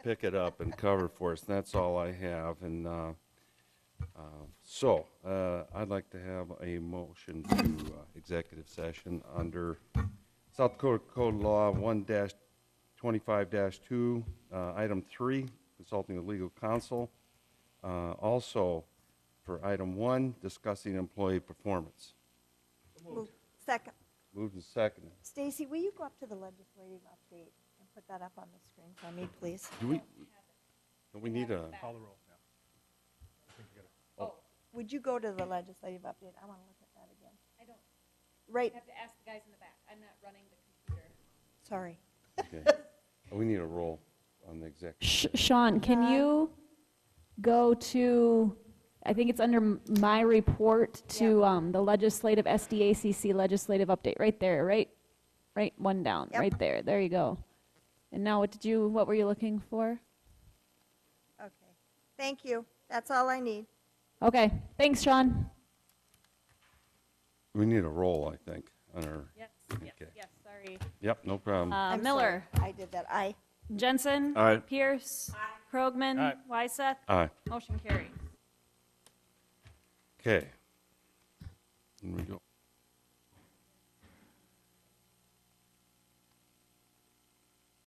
pick it up and cover for us. And that's all I have. And uh, uh, so uh, I'd like to have a motion to uh, executive session under South Dakota Code Law 1-25-2, uh, item 3, consulting with legal counsel. Uh, Also, for item 1, discussing employee performance. Moved. Second. Moved and seconded. Stacy, will you go up to the legislative update and put that up on the screen for me, please? Do we, do we need a, Call the roll, yeah. I think we gotta- Would you go to the legislative update? I want to look at that again. I don't, Right, I have to ask the guys in the back. I'm not running the computer. sorry. okay. Oh, we need a roll on the executive. Sh- Sean, can Uh, you go to, I think it's under m- my report to um, the legislative, SDACC legislative update, right there, right? Right, one down, Yep. right there, there you go. And now what did you, what were you looking for? Okay. Thank you. That's all I need. Okay, thanks, Sean. We need a roll, I think, on our, Yes, yes, Okay. yes, sorry. yep, no problem. Uh, I'm Miller. sorry. I did that. I. Jensen. Aye. Pierce. Krogman. Aye. Wyseth. Aye. Motion carried. Okay. Here we go.